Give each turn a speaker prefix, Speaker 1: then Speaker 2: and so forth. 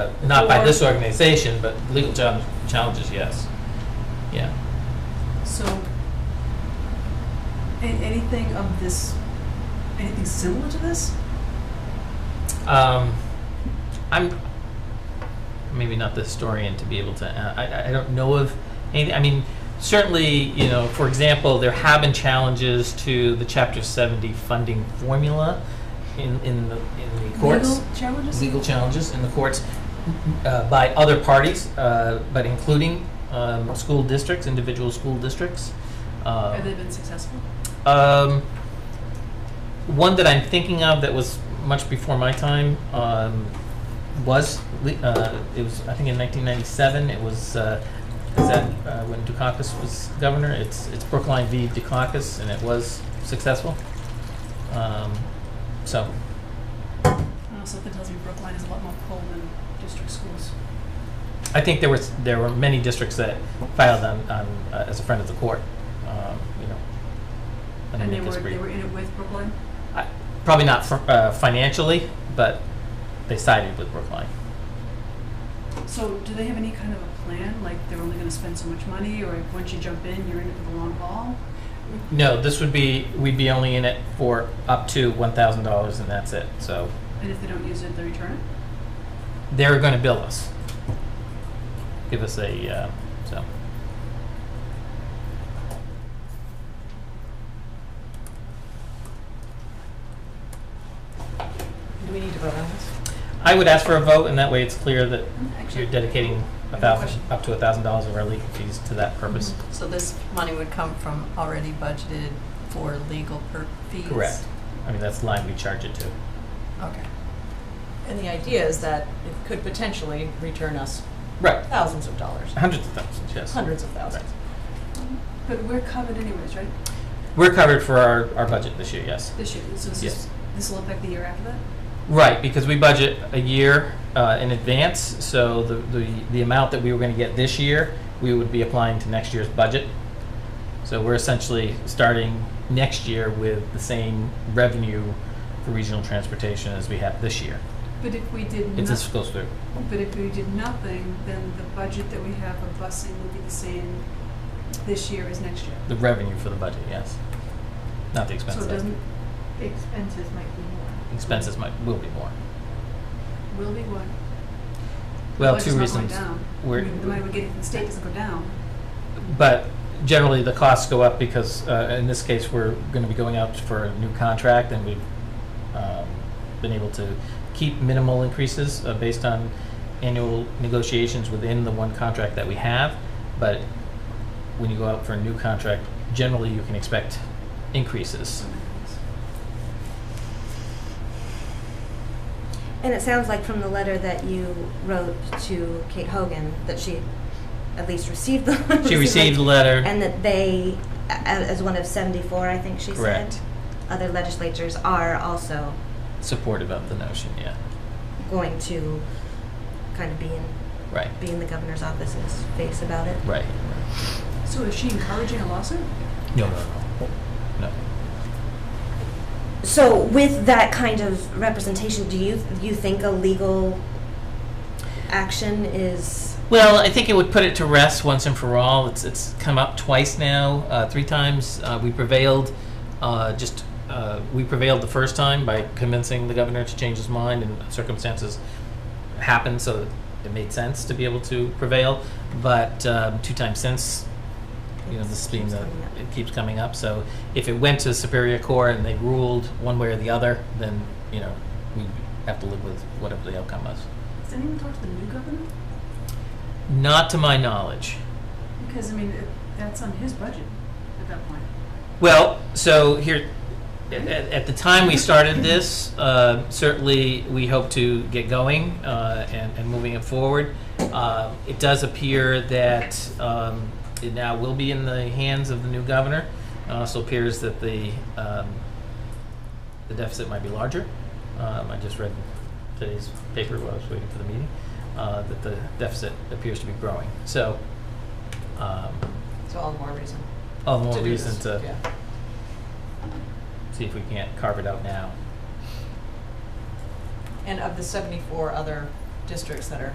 Speaker 1: Uh, Not by this organization, but legal chal- challenges, yes. Yeah.
Speaker 2: So, a- anything of this, anything similar to this?
Speaker 1: Um, I'm maybe not the historian to be able to. Uh, I, I don't know of anything. I mean, certainly, you know, for example, there have been challenges to the Chapter 70 funding formula in, in, the, in the courts.
Speaker 2: Legal challenges?
Speaker 1: legal challenges in the courts uh, by other parties, uh, but including um, school districts, individual school districts. Uh,
Speaker 2: Have they been successful?
Speaker 1: um, one that I'm thinking of that was much before my time um, was le- uh, it was I think in 1997 it was uh, is that uh, when Dukakis was governor it's it's Brookline v Dukakis and it was successful um, so
Speaker 2: Uh, something tells me Brookline is a lot more pull than district schools.
Speaker 1: I think there was, there were many districts that filed on, on, uh, as a friend of the court, um, you know. let me
Speaker 2: And they
Speaker 1: make
Speaker 2: were,
Speaker 1: this
Speaker 2: they
Speaker 1: brief.
Speaker 2: were in it with Brookline?
Speaker 1: I- Probably not fr- uh, financially, but they sided with Brookline.
Speaker 2: So do they have any kind of a plan, like they're only gonna spend so much money, or if once you jump in, you're in it for the long haul?
Speaker 1: No, this would be, we'd be only in it for up to one thousand dollars and that's it, so
Speaker 2: And if they don't use it, they return it?
Speaker 1: they're gonna bill us. Give us a, uh, so.
Speaker 3: Do we need to vote on this?
Speaker 1: I would ask for a vote and that way it's clear that
Speaker 2: Mm, Actually,
Speaker 1: you're dedicating
Speaker 2: I have
Speaker 1: a
Speaker 2: a
Speaker 1: thousand, Oh.
Speaker 2: question.
Speaker 1: up to a thousand dollars of our legal fees to that purpose.
Speaker 4: So this money would come from already budgeted for legal per fees?
Speaker 1: Correct. I mean, that's the line we charge it to.
Speaker 4: Okay.
Speaker 3: And the idea is that it could potentially return us
Speaker 1: Right.
Speaker 3: thousands of dollars,
Speaker 1: Hundreds of thousands, yes.
Speaker 3: hundreds of thousands.
Speaker 2: But we're covered anyways, right?
Speaker 1: We're covered for our, our budget this year, yes.
Speaker 2: This year, so this
Speaker 1: Yes.
Speaker 2: is, this will affect the year after that?
Speaker 1: Right, because we budget a year uh, in advance, so the, the, the amount that we were going to get this year, we would be applying to next year's budget. So we're essentially starting next year with the same revenue for regional transportation as we have this year.
Speaker 2: But if we did
Speaker 1: It's as
Speaker 2: not,
Speaker 1: close to,
Speaker 2: but if we did nothing, then the budget that we have of busing would be the same this year as next year.
Speaker 1: the revenue for the budget, yes. Not the
Speaker 2: So
Speaker 1: expenses.
Speaker 2: it doesn't,
Speaker 5: The expenses might be more.
Speaker 1: Expenses might, will be more.
Speaker 2: will be what?
Speaker 1: Well,
Speaker 2: Budget's
Speaker 1: two
Speaker 2: not going
Speaker 1: reasons.
Speaker 2: down. I
Speaker 1: We're-
Speaker 2: mean, The money we get from the state doesn't go down.
Speaker 1: But generally, the costs go up because, uh, in this case, we're going to be going out for a new contract, and we've um, been able to keep minimal increases uh, based on annual negotiations within the one contract that we have. But when you go out for a new contract, generally, you can expect increases.
Speaker 6: And it sounds like from the letter that you wrote to Kate Hogan that she at least received the
Speaker 1: She received a letter,
Speaker 6: and that they, a- as one of 74, I think she
Speaker 1: Correct.
Speaker 6: said, other legislatures are also
Speaker 1: supportive of the notion, yeah,
Speaker 6: going to kind of be in,
Speaker 1: right,
Speaker 6: be in the governor's office in his face about it.
Speaker 1: right.
Speaker 2: So is she encouraging a lawsuit?
Speaker 1: No, no, no, no.
Speaker 6: So with that kind of representation, do you you think a legal action is
Speaker 1: Well, I think it would put it to rest once and for all. It's it's come up twice now, uh, three times. Uh, we prevailed. Uh, just uh, we prevailed the first time by convincing the governor to change his mind, and circumstances happened, so it made sense to be able to prevail. But um, two times since, you know, this being
Speaker 6: Keeps
Speaker 1: the
Speaker 6: coming up.
Speaker 1: it keeps coming up. So if it went to Superior Court and they ruled one way or the other, then you know we have to live with whatever the outcome was.
Speaker 2: Does anyone talk to the new governor?
Speaker 1: Not to my knowledge.
Speaker 2: Because, I mean, it- that's on his budget at that point.
Speaker 1: Well, so here, at, at the time we started this, uh, certainly we hope to get going uh, and, and moving it forward. Uh, it does appear that um, it now will be in the hands of the new governor. It also appears that the um, the deficit might be larger. Um, I just read today's paper while I was waiting for the meeting uh, that the deficit appears to be growing. So, um,
Speaker 3: So all the more reason
Speaker 1: all the more
Speaker 3: to do
Speaker 1: reason
Speaker 3: this.
Speaker 1: to
Speaker 3: Yeah.
Speaker 1: see if we can't carve it out now.
Speaker 3: And of the 74 other districts that are